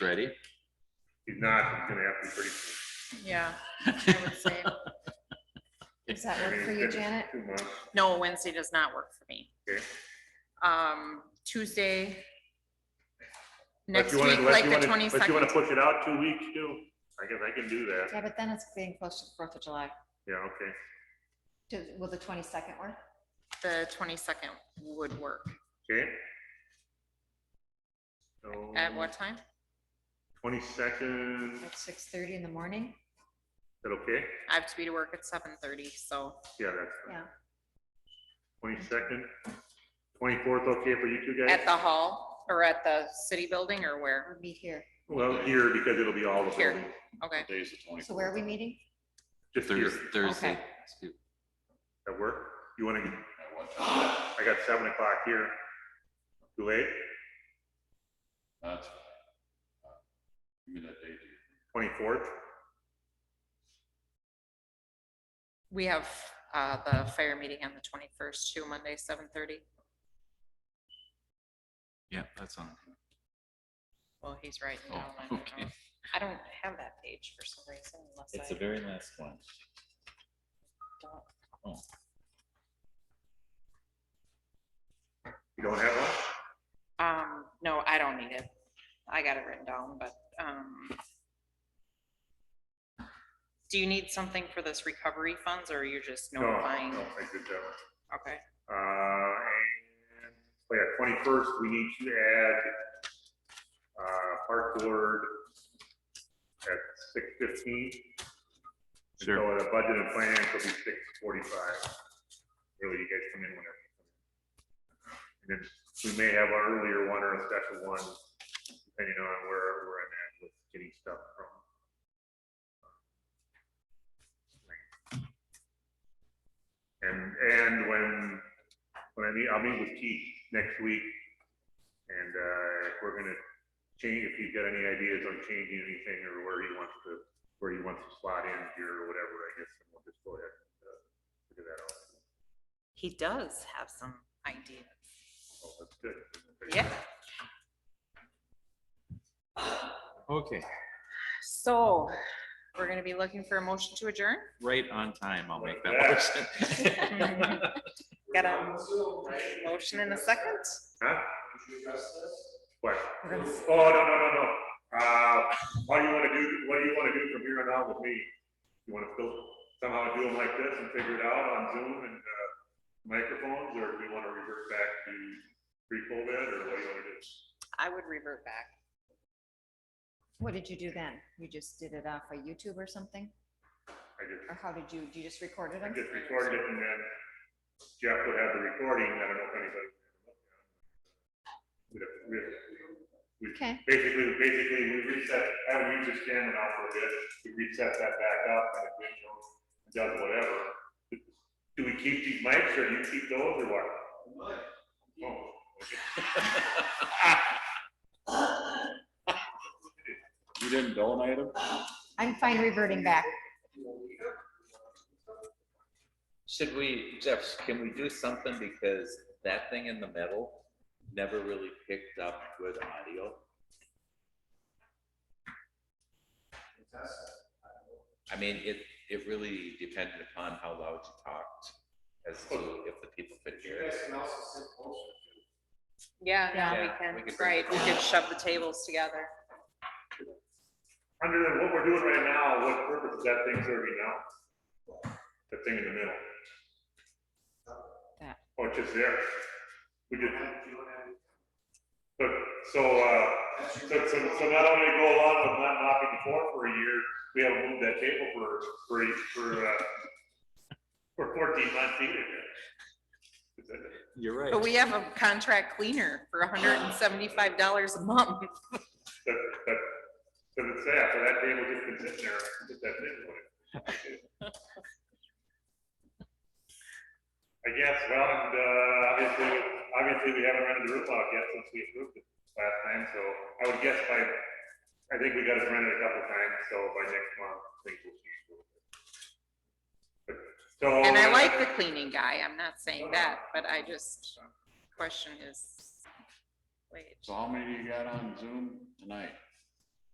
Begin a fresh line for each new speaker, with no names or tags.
Ready?
He's not, he's gonna have to be pretty. soon.
Yeah, I would say,
Does that
I
work
mean,
for you,
it's
Janet?
Two months.
no, Wednesday does not work for me.
Okay.
Um, Tuesday.
Unless
Next
you wanna-
week,
unless
like
you
the
wanna- Unless you wanna
twenty-second,
push it out two weeks too, I guess I can do that.
Yeah, but then it's getting close to the Fourth of July.
Yeah, okay.
Do- Will the twenty-second work?
the twenty-second would work.
Okay.
At what time?
Twenty-second, is
At six-thirty in the morning?
that okay?
I have to be to work at seven thirty, so
Yeah, that's.
Yeah.
Twenty-second, twenty-fourth, okay for you two
at
guys?
the hall or at the city building or where?
Or meet here?
Well, here, because it'll be all the
Here.
building,
Okay,
Days of
So where are we meeting?
just here,
Thursday, Thursday.
Okay.
Excuse-
at work. You wanna, I got seven o'clock here. Too late,
That's. Uh, Give me that date.
twenty-fourth,
we have, uh, the fire meeting on the twenty-first, too, Monday, seven thirty.
Yeah, that's on.
Well, he's right.
Oh,
down on it.
okay.
I don't have that page for some reason unless I
very last one.
don't.
you don't have one?
Um, no, I don't need it. I got it written down, but, um. Do you need something for this recovery funds or you're just
No,
notifying?
No, I did that one.
Okay,
Uh, and, oh yeah, twenty-first, we need to add, uh, park board at six fifteen. So
Sure.
the budget and plan will be six forty-five. Really, you guys come in whenever. And then we may have an earlier one or a special one, depending on where we're at with getting stuff from. And, and when, when I meet, I'll meet with Keith next week. And, uh, if we're gonna change, if he's got any ideas on changing anything or where he wants to, where he wants to slot in here or whatever, I guess, and we'll just go ahead and, uh, figure that out.
he does have some idea.
So Oh, that's good.
Yeah,
Okay,
so we're gonna be looking for a motion to adjourn?
right on time. I'll make that
Yeah.
motion.
Got a motion in a second?
Huh? What?
We're gonna-
Oh, no, no, no, no. Uh, what do you wanna do, what do you wanna do from here on out with me? You wanna still somehow do them like this and figure it out on Zoom and, uh, microphones, or do you wanna revert back to pre-COVID, or what do you wanna do?
I would revert back.
What did you do then? You just did it off of YouTube or something?
I just,
Or how did you, you just recorded
I
them?
just recorded it, and then Jeff would have the recording, I don't know if anybody. We'd have- we'd have- we'd-
Okay,
Basically, basically, we reset, I would use this camera now for a bit, we reset that back up, and it video does whatever. Do we keep these mics, or do you keep those, or what? Oh,
You didn't donate them?
I'm fine reverting back.
Should we, Jeff, can we do something because that thing in the middle never really picked up good audio? I mean, it, it really depended upon how loud you talked as to if the people could hear it.
Yeah, yeah,
Yeah.
we
Yeah, we
can,
could bring-
right, we could shove the tables together.
Under what we're doing right now, what purpose is that thing serving now? The thing in the middle?
That.
Oh, it's just there. We just. But, so, uh, so, so, so not only go along with not knocking the floor for a year, we haven't moved that table for, for, for, uh, for fourteen months either.
You're right.
But we have a contract cleaner for hundred and seventy-five dollars a month.
But, but, but it's that, so that table just been sitting there, just that middle one. I guess, well, and, uh, obviously, obviously, we haven't rented the roof out yet since we approved it last time, so I would guess by, I think we got it rented a couple times, so by next month, things will change. a little bit. But- So.
And I like the cleaning guy, I'm not saying that, but I just question his wage.
So how many do you got on Zoom tonight?